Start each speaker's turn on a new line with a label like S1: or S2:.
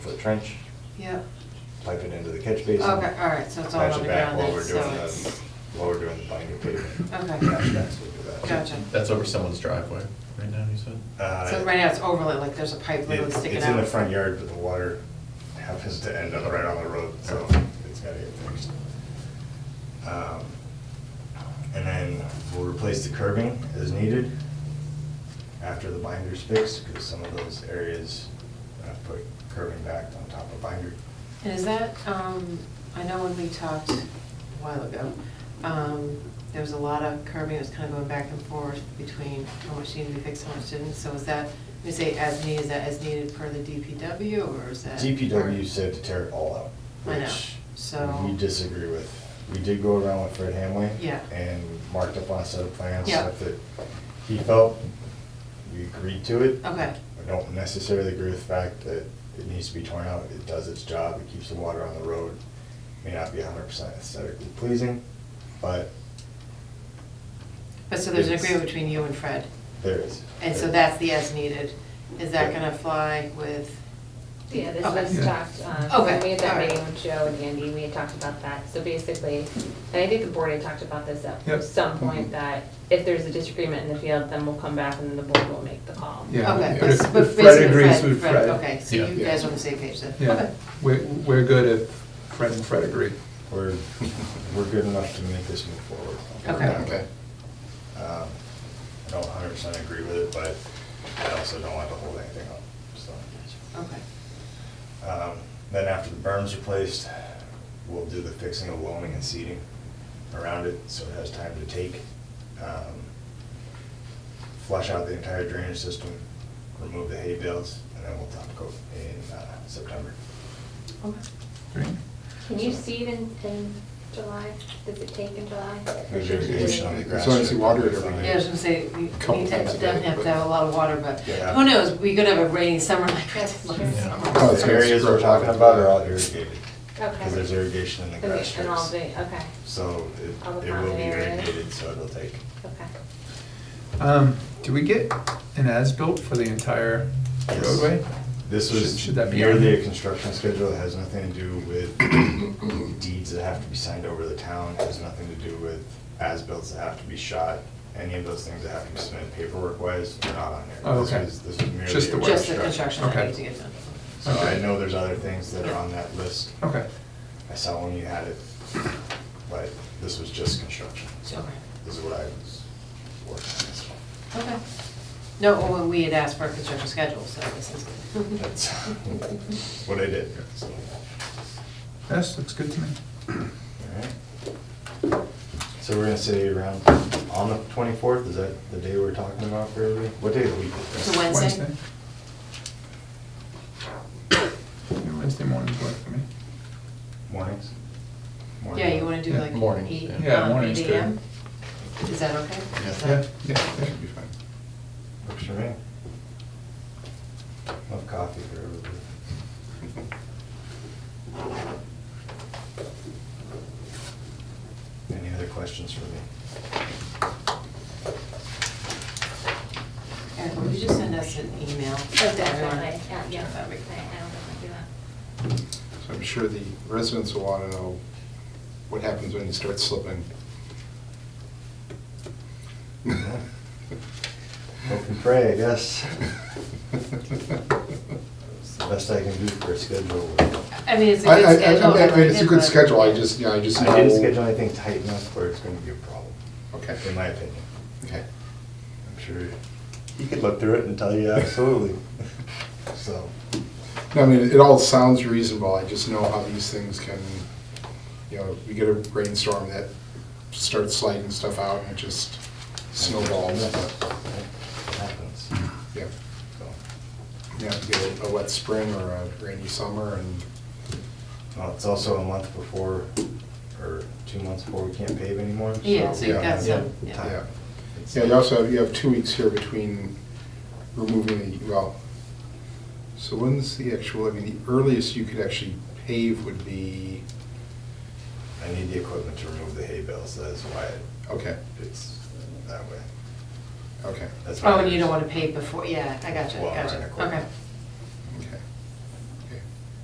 S1: for the trench,
S2: Yep,
S1: pipe it into the catch
S2: okay,
S1: basin.
S2: all right, so it's all
S1: patch it
S2: on the
S1: back
S2: ground
S1: while
S2: then,
S1: we're
S2: so
S1: doing the-
S2: it's,
S1: While we're doing the binder pavement.
S2: okay,
S1: Patch backs, we'll do that.
S2: gotcha.
S3: That's over someone's driveway right now, you said?
S1: Uh,
S2: So right now it's overlay, like there's a pipe literally
S1: it-
S2: sticking out.
S1: It's in the front yard, but the water happens to end up right on the road, so it's gotta get fixed. Um, And then we'll replace the curbing as needed after the binder's fixed, because some of those areas, uh, put curbing back on top of binder.
S2: And is that, um, I know when we talked a while ago, um, there was a lot of curbing, it was kind of going back and forth between how much needed to be fixed, how much didn't, so is that, when you say as needed, is that as needed per the DPW, or is that?
S1: DPW said to tear it all out,
S2: I know,
S1: which
S2: so-
S1: we disagree with. We did go around with Fred Hamway.
S2: Yeah.
S1: And marked up on a set of plans,
S2: Yeah.
S1: stuff that he felt, we agreed to it.
S2: Okay,
S1: I don't necessarily agree with the fact that it needs to be torn out. It does its job, it keeps the water on the road. May not be hundred percent aesthetically pleasing, but
S2: but so there's an
S1: It's-
S2: agreement between you and Fred,
S1: there is.
S2: and so that's the as needed, is that gonna fly with,
S4: Yeah, this
S2: Okay.
S4: was
S3: Yeah.
S4: talked, um, when
S2: Okay,
S4: we had that
S2: alright.
S4: meeting with Joe and Andy, we had talked about that. So basically, and I think the board had talked about this
S3: Yep. Mhm.
S4: at some point, that if there's a disagreement in the field, then we'll come back and then the board will make the call.
S5: Yeah.
S2: okay,
S5: but
S2: but
S5: if-
S2: but
S5: if
S2: basically
S5: Fred agrees
S2: Fred,
S5: with
S2: Fred,
S5: Fred.
S2: okay, so
S3: Yeah.
S2: you guys are on the same page then?
S5: Yeah,
S2: Okay.
S5: we're, we're good if Fred and Fred agree.
S1: We're, we're good enough to make this move forward.
S2: Okay.
S5: Okay.
S1: Um, I don't hundred percent agree with it, but I also don't want to hold anything up, so.
S2: Okay,
S1: Um, Then after the berm's replaced, we'll do the fixing of loaming and seeding around it, so it has time to take. Um, Flush out the entire drainage system, remove the hay bales, and then we'll top coat in uh, September.
S2: okay.
S5: Great.
S4: Can you seed in, in July? Does it take in July?
S1: There's irrigation on the grass.
S5: As long as you water it every day.
S2: Yeah, I was gonna say, we
S5: Couple
S2: we
S5: times a day,
S2: definitely have to
S5: but-
S2: have a lot of water, but
S1: Yeah.
S2: who knows, we could have a rainy summer like we
S4: That's
S2: did
S4: true.
S2: last
S3: Yeah.
S2: summer.
S1: Oh, The areas we're talking about are all irrigated, because there's
S4: Okay.
S1: irrigation in the grass
S4: Okay,
S1: strips.
S4: and all the, okay,
S1: So it
S4: All the
S1: it will
S4: common
S1: be
S4: areas.
S1: irrigated, so it'll take.
S4: okay.
S5: Um, do we get an as-built for the entire
S1: Yes.
S5: roadway?
S1: This
S5: Should-
S1: was
S5: should that be
S1: merely
S5: on?
S1: a construction schedule, it has nothing to do with deeds that have to be signed over the town, it has nothing to do with as-bills that have to be shot, any of those things that have to be submitted paperwork-wise, are not on here.
S5: Oh,
S1: This
S5: okay.
S1: was- This was merely.
S5: Just the
S1: a
S5: work.
S2: Just the construction that
S5: Okay.
S2: needs to get done.
S1: So I
S5: Okay.
S1: know there's other things that are on that list,
S5: Okay,
S1: I saw when you had it, but this was just construction, so
S2: Okay.
S1: this is what I was working on this one.
S2: Okay. No, well, when we had asked for a construction schedule, so this is good.
S1: That's what I did, so.
S5: this looks good to me.
S1: Alright. So we're gonna say around, on the twenty-fourth, is that the day we're talking about for everybody? What day of the week is
S2: It's a
S1: that?
S2: Wednesday?
S5: Yeah, Wednesday mornings work for me.
S1: Mornings? Morning.
S2: Yeah, you wanna do
S5: Yeah,
S2: like
S3: morning,
S2: eight,
S3: yeah.
S5: Yeah,
S2: um,
S5: morning's
S2: eight
S5: good.
S2: AM? Is that okay? Is that-
S5: Yeah, yeah, yeah.
S6: Should be fine.
S1: Works for me. Love coffee for everybody. Any other questions for me?
S2: Eric, would you just send us an email?
S4: Oh,
S2: everyone?
S4: definitely, yeah, yeah. I I
S2: That'd
S4: don't
S2: be
S4: think
S2: great.
S4: I do
S6: So I'm sure the residents will want to know what happens when you start slipping.
S1: Hope and pray, I guess. It's the best I can do for a schedule.
S2: I mean, it's a
S6: I, I,
S2: good
S6: I-
S2: schedule.
S6: I- I- it's a good
S2: but-
S6: schedule, I just, you know, I just.
S1: I didn't
S6: know-
S1: schedule anything tight enough where it's gonna be a problem,
S6: Okay,
S1: in my opinion.
S6: okay.
S1: I'm sure he could look through it and tell you absolutely. So,
S6: No, I mean, it all sounds reasonable, I just know how these things can, you know, you get a rainstorm that starts sliding stuff out and it just snowballs.
S1: It happens.
S6: Yeah,
S1: So,
S6: you have to get a- a wet spring or a rainy summer and,
S1: well, it's also a month before, or two months before we can't pave anymore.
S2: Yeah, so you've
S6: Yeah.
S2: got some,
S1: Yeah.
S2: yeah.
S6: yeah.
S1: It's-
S6: Yeah, you also, have- you have two weeks here between removing the, well, so when's the actual, I mean, the earliest you could actually pave would be,
S1: I need the equipment to remove the hay bales, that is why
S6: okay,
S1: it's that way.
S6: okay.
S1: That's why
S2: Oh, and you
S1: there's-
S2: don't wanna pay before, yeah, I gotcha,
S1: Well, right,
S2: gotcha,
S1: of course.
S2: okay.